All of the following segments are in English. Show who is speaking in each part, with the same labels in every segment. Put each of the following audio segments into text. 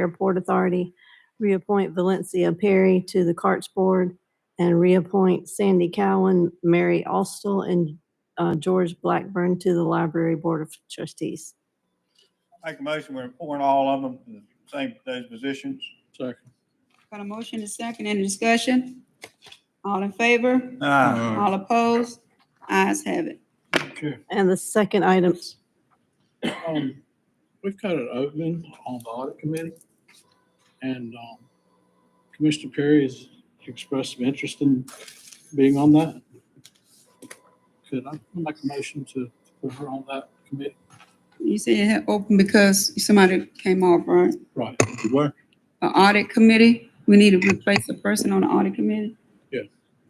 Speaker 1: Airport Authority, reappoint Valencia Perry to the Carts Board, and reappoint Sandy Cowan, Mary Austell, and uh, George Blackburn to the Library Board of Trustees.
Speaker 2: Make a motion, we're appointing all of them to the same, those positions.
Speaker 3: Second.
Speaker 4: Got a motion and second, any discussion? All in favor?
Speaker 2: Aye.
Speaker 4: All opposed? Ayes have it.
Speaker 3: Okay.
Speaker 1: And the second item,
Speaker 3: Um, We've got an opening on the audit committee. And um, Commissioner Perry has expressed some interest in being on that. Could I make a motion to put her on that committee?
Speaker 4: You said it had opened because somebody came off, right?
Speaker 3: Right.
Speaker 4: An audit committee, we need to replace a person on the audit committee?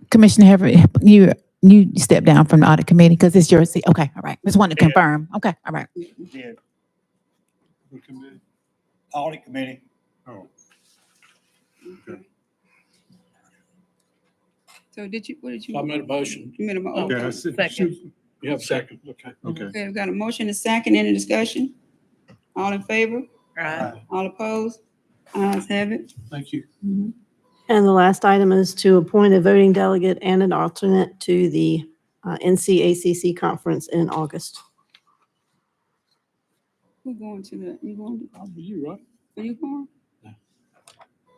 Speaker 5: Commissioner Heffernan, you, you stepped down from the audit committee because it's your seat. Okay, all right. Just wanted to
Speaker 2: Yeah.
Speaker 5: confirm. Okay, all right.
Speaker 2: Yeah,
Speaker 3: The committee.
Speaker 2: audit committee.
Speaker 3: Oh.
Speaker 4: So did you, what did
Speaker 3: So I
Speaker 4: you?
Speaker 3: made a motion.
Speaker 4: You made a mo-
Speaker 6: Yeah, I
Speaker 4: okay.
Speaker 6: see.
Speaker 3: Second. You have a second, okay.
Speaker 6: Okay.
Speaker 4: Okay, we got a motion and second, any discussion? All in favor?
Speaker 2: Aye.
Speaker 4: All opposed? Ayes have it.
Speaker 3: Thank you.
Speaker 1: and the last item is to appoint a voting delegate and an alternate to the uh, NCACC Conference in August.
Speaker 4: Who going to the, you going,
Speaker 3: Bobby, You right?
Speaker 4: to- are you going?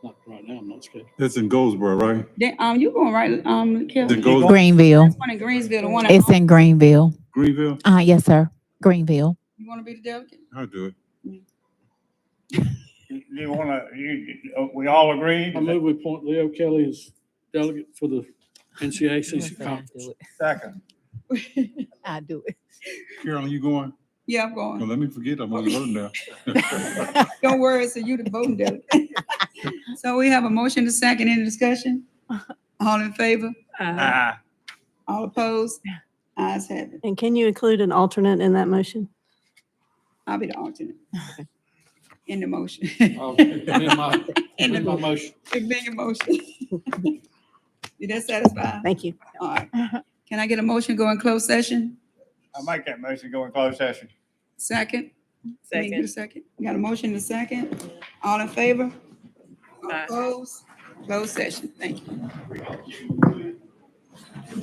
Speaker 3: Not right now, I'm not scared.
Speaker 6: That's in Goldsboro, right?
Speaker 4: They- um, you going, right, um,
Speaker 6: Then
Speaker 4: Kelly?
Speaker 6: Goldsboro,
Speaker 4: This
Speaker 5: Greenville.
Speaker 4: one in Greensville, the one in,
Speaker 5: It's in Greenville.
Speaker 6: Greenville,
Speaker 5: Uh, yes, sir. Greenville.
Speaker 4: you wanna be the delegate?
Speaker 6: I'll do it.
Speaker 2: You you wanna, you, you- we all agree?
Speaker 3: I move we appoint Leo Kelly as delegate for the NCACC conference.
Speaker 2: Second.
Speaker 5: I do it.
Speaker 6: Carolyn, you going?
Speaker 4: Yeah, I'm
Speaker 6: Don't
Speaker 4: going.
Speaker 6: let me forget, I'm on the road now.
Speaker 4: Don't worry, so you the voting delegate. So we have a motion to second, any discussion? All in favor?
Speaker 2: Aye.
Speaker 4: All opposed? Ayes have it.
Speaker 1: And can you include an alternate in that motion?
Speaker 4: I'll be the alternate. In the motion.
Speaker 3: I'll amend my-
Speaker 4: In
Speaker 3: amend my
Speaker 4: the,
Speaker 3: motion.
Speaker 4: big motion. Did that satisfy?
Speaker 1: Thank you.
Speaker 4: All right. Can I get a motion go in closed session?
Speaker 2: I make that motion, go in closed session.
Speaker 4: Second? Can you get a Second. Got a motion to second? All in favor? All Opposed? Closed session, thank you.